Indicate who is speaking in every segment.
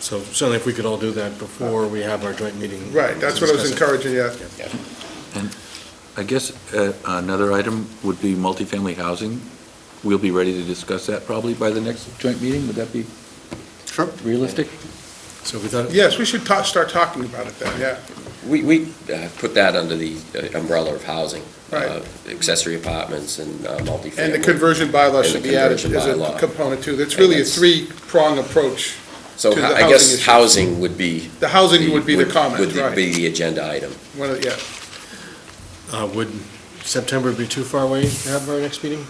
Speaker 1: So certainly if we could all do that before we have our joint meeting.
Speaker 2: Right, that's what I was
Speaker 1: Discuss it.
Speaker 2: encouraging, yeah.
Speaker 3: I guess uh, another item would be multifamily housing. We'll be ready to discuss that probably by the next joint meeting. Would that be
Speaker 4: Sure.
Speaker 3: realistic?
Speaker 1: So we thought,
Speaker 2: Yes, we should ta- start talking about it then, yeah.
Speaker 5: We, we uh, put that under the uh, umbrella of housing.
Speaker 2: Right.
Speaker 5: uh, Accessory apartments and uh, multifamily.
Speaker 2: And the conversion bylaw
Speaker 5: And
Speaker 2: should
Speaker 5: the
Speaker 2: be added
Speaker 5: conversion
Speaker 2: as a
Speaker 5: bylaw.
Speaker 2: component too. That's
Speaker 5: And
Speaker 2: really a
Speaker 5: that's-
Speaker 2: three-prong approach.
Speaker 5: So
Speaker 2: to the
Speaker 5: ho- I
Speaker 2: housing
Speaker 5: guess
Speaker 2: issue.
Speaker 5: housing would be.
Speaker 2: The housing would be the comment,
Speaker 5: Would be
Speaker 2: right?
Speaker 5: the agenda item.
Speaker 2: One of- Yeah,
Speaker 1: uh, would September be too far away to have our next meeting?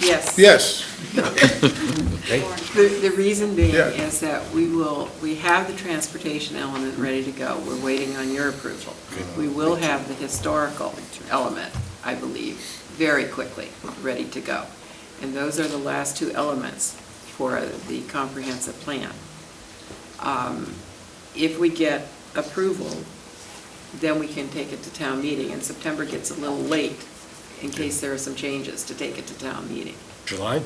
Speaker 6: Yes.
Speaker 2: yes,
Speaker 6: The, the reason being
Speaker 2: Yeah.
Speaker 6: is that we will, we have the transportation element ready to go. We're waiting on your approval. We will have the historical element, I believe, very quickly, ready to go. And those are the last two elements for the comprehensive plan. Um, If we get approval, then we can take it to town meeting, and September gets a little late in case there are some changes to take it to town meeting.
Speaker 1: July?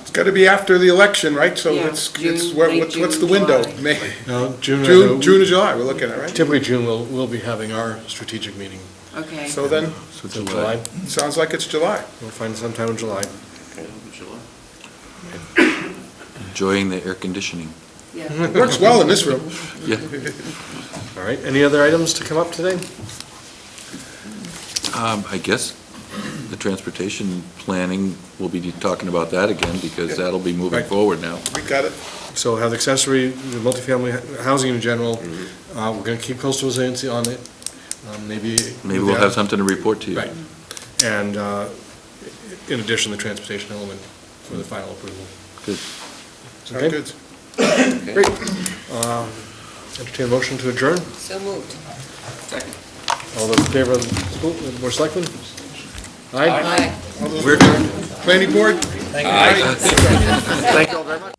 Speaker 2: it's got to be after the election, right? So
Speaker 6: Yeah,
Speaker 2: it's, it's,
Speaker 6: June,
Speaker 2: what-
Speaker 6: late
Speaker 2: what's what's the
Speaker 6: June,
Speaker 2: window?
Speaker 6: July.
Speaker 2: May,
Speaker 1: No, Uh, June. I know-
Speaker 2: June, June or July, we're looking at, right?
Speaker 1: Typically, June, we'll, we'll be having our strategic meeting.
Speaker 6: Okay?
Speaker 2: So then,
Speaker 3: So uh,
Speaker 1: So
Speaker 3: July.
Speaker 2: sounds like it's July.
Speaker 1: We'll find sometime in July.
Speaker 3: Enjoying the air conditioning.
Speaker 6: Yeah.
Speaker 2: It works well in this room.
Speaker 3: Yeah.
Speaker 1: All right, any other items to come up today?
Speaker 3: Um, I guess the transportation planning, we'll be talking about that again because that'll be moving
Speaker 2: Right.
Speaker 3: forward now.
Speaker 2: We got it.
Speaker 1: So we'll have accessory, the multifamily h- housing in general.
Speaker 3: Mm-hmm.
Speaker 1: Uh, We're going to keep coastal resiliency on it, um, maybe.
Speaker 3: Maybe we'll have something to report to you.
Speaker 1: Right. And uh, in addition, the transportation element for the final approval.
Speaker 3: Good.
Speaker 2: Sounds
Speaker 1: Okay.
Speaker 2: good.
Speaker 1: Um, Entertain a motion to adjourn.
Speaker 6: So moved.
Speaker 1: All those in favor of the school, the board of selectmen? Aye?
Speaker 6: Aye.
Speaker 2: Planning board?
Speaker 5: Aye.
Speaker 1: Thank you all very much.